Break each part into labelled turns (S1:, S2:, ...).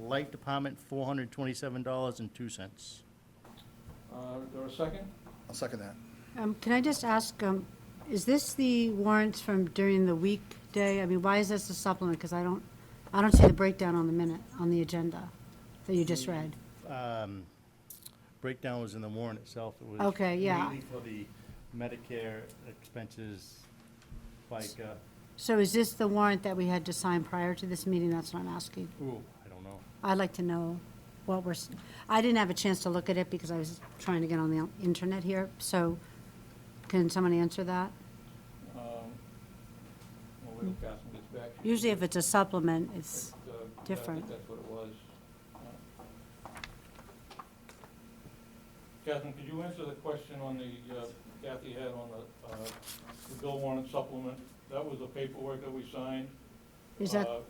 S1: Light Department, four hundred twenty-seven dollars and two cents.
S2: Uh, There a second?
S3: I'll second that.
S4: Um, Can I just ask, um, is this the warrants from during the weekday? I mean, why is this a supplement? Because I don't, I don't see the breakdown on the minute, on the agenda that you just read.
S1: Um, Breakdown was in the warrant itself. It was
S4: Okay, yeah.
S1: Mainly for the Medicare expenses, FICA,
S4: So is this the warrant that we had to sign prior to this meeting? That's what I'm asking.
S1: ooh, I don't know.
S4: I'd like to know what we're, s- I didn't have a chance to look at it because I was trying to get on the internet here. So can someone answer that?
S2: Um, We'll wait till Catherine gets back. She-
S4: Usually if it's a supplement, it's,
S2: But, uh, I
S4: different.
S2: think that's what it was. Uh, Catherine, could you answer the question on the, uh, Kathy had on the, uh, the bill warrant supplement? That was the paperwork that we signed.
S4: is that,
S2: Uh,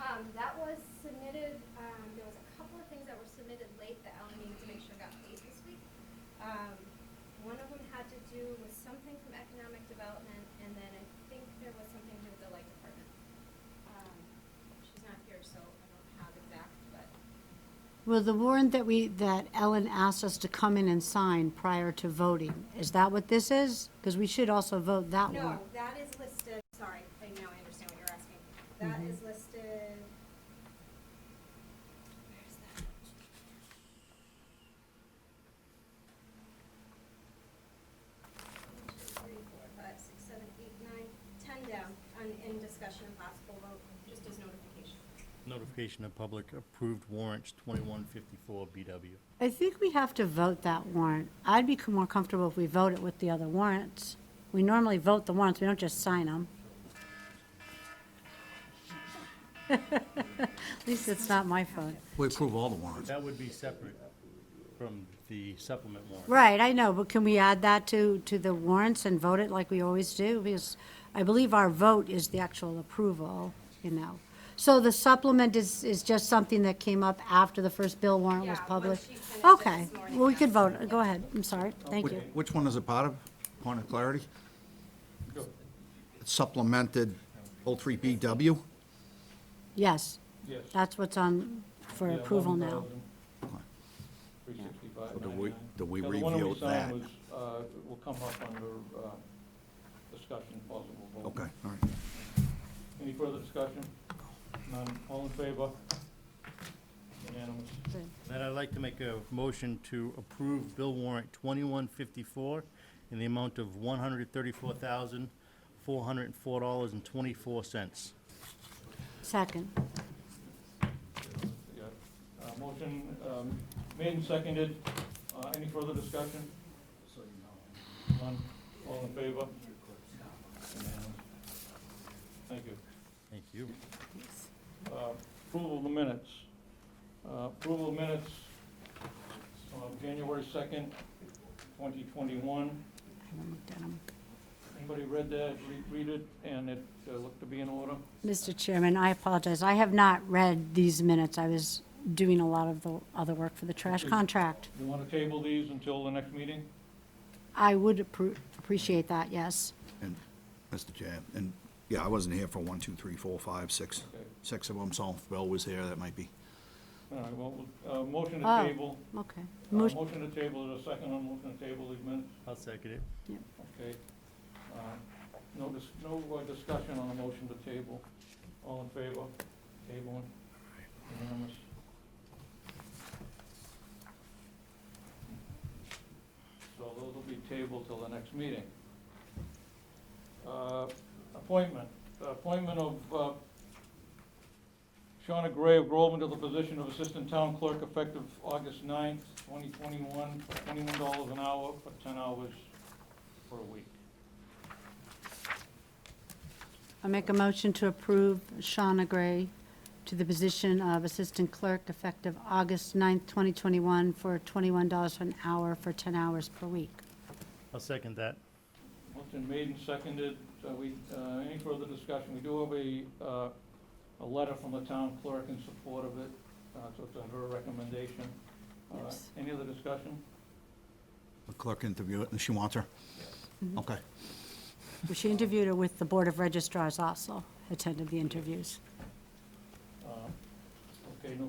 S5: Um, that was submitted, um, there was a couple of things that were submitted late that Ellen needed to make sure got paid this week. Um, one of them had to do with something from economic development, and then I think there was something to do with the light department. Um, she's not here, so I don't have exact, but,
S4: Well, the warrant that we, that Ellen asked us to come in and sign prior to voting, is that what this is? Because we should also vote that
S5: no,
S4: warrant.
S5: that is listed, sorry, I now I understand what you're asking. That is listed. Where's that? One, two, three, four, five, six, seven, eight, nine, ten down, on, in discussion and possible vote, just as notification.
S1: Notification of public approved warrants, twenty-one fifty-four BW.
S4: I think we have to vote that warrant. I'd be more comfortable if we vote it with the other warrants. We normally vote the warrants, we don't just sign them. At least it's not my phone.
S3: We approve all the warrants.
S1: That would be separate from the supplement warrant.
S4: Right, I know, but can we add that to, to the warrants and vote it like we always do? Because I believe our vote is the actual approval, you know. So the supplement is, is just something that came up after the first bill warrant was
S5: Yeah, once
S4: published?
S5: she finished it
S4: Okay,
S5: this morning,
S4: well, we could
S5: yeah.
S4: vote, go ahead, I'm sorry, thank
S3: Which-
S4: you.
S3: Which one is it part of, point of clarity? It's Supplemented 03BW?
S4: Yes,
S2: Yes.
S4: that's what's on for
S2: Yeah,
S4: approval now.
S2: 11,365.99.
S3: So do we- do we
S2: Yeah, the one
S3: review that?
S2: signed was, uh, will come up under uh, discussion, possible vote.
S3: Okay, all right.
S2: Any further discussion? None, all in favor? Unanimous.
S1: Then I'd like to make a motion to approve bill warrant twenty-one fifty-four in the amount of one hundred thirty-four thousand, four hundred and four dollars and twenty-four cents.
S4: Second,
S2: Yeah. Uh, Motion um, made and seconded. Uh, Any further discussion? None, all in favor? Unanimous. Thank you.
S1: Thank you.
S2: Uh, Approval of the minutes. Uh, Approval of minutes of January 2nd, 2021. Anybody read that, Re- read it, and it uh, looked to be in order?
S4: Mr. Chairman, I apologize, I have not read these minutes, I was doing a lot of the other work for the trash
S2: Okay.
S4: contract.
S2: You want to table these until the next meeting?
S4: I would appro- appreciate that, yes.
S3: And, Mr. Chair, and, yeah, I wasn't here for one, two, three, four, five, six,
S2: Okay.
S3: six of them, so if Bill was there, that might be.
S2: All right, well, uh, motion to
S4: Oh.
S2: table,
S4: Okay.
S2: uh,
S4: Mo-
S2: motion to table, is there a second on motion to table these minutes,
S1: I'll second it.
S2: okay? Uh, No, dis- no uh, discussion on the motion to table, all in favor, tabling, unanimous. So those will be tabled till the next meeting. Uh, Appointment, appointment of uh, Shauna Gray of Groveland to the position of Assistant Town Clerk effective August 9th, 2021, $21 an hour for 10 hours per week.
S4: I make a motion to approve Shauna Gray to the position of Assistant Clerk effective August 9th, 2021, for $21 an hour for 10 hours per week.
S1: I'll second that.
S2: Motion made and seconded. So we, uh, any further discussion? We do have a, uh, a letter from the town clerk in support of it, uh, so it's under her recommendation. Uh,
S4: Yes.
S2: Any other discussion?
S3: The clerk interviewed it, and she wants her?
S4: Mm-hmm.
S3: Okay.
S4: She interviewed her with the Board of Registrars also, attended the interviews.
S2: Uh, Okay, no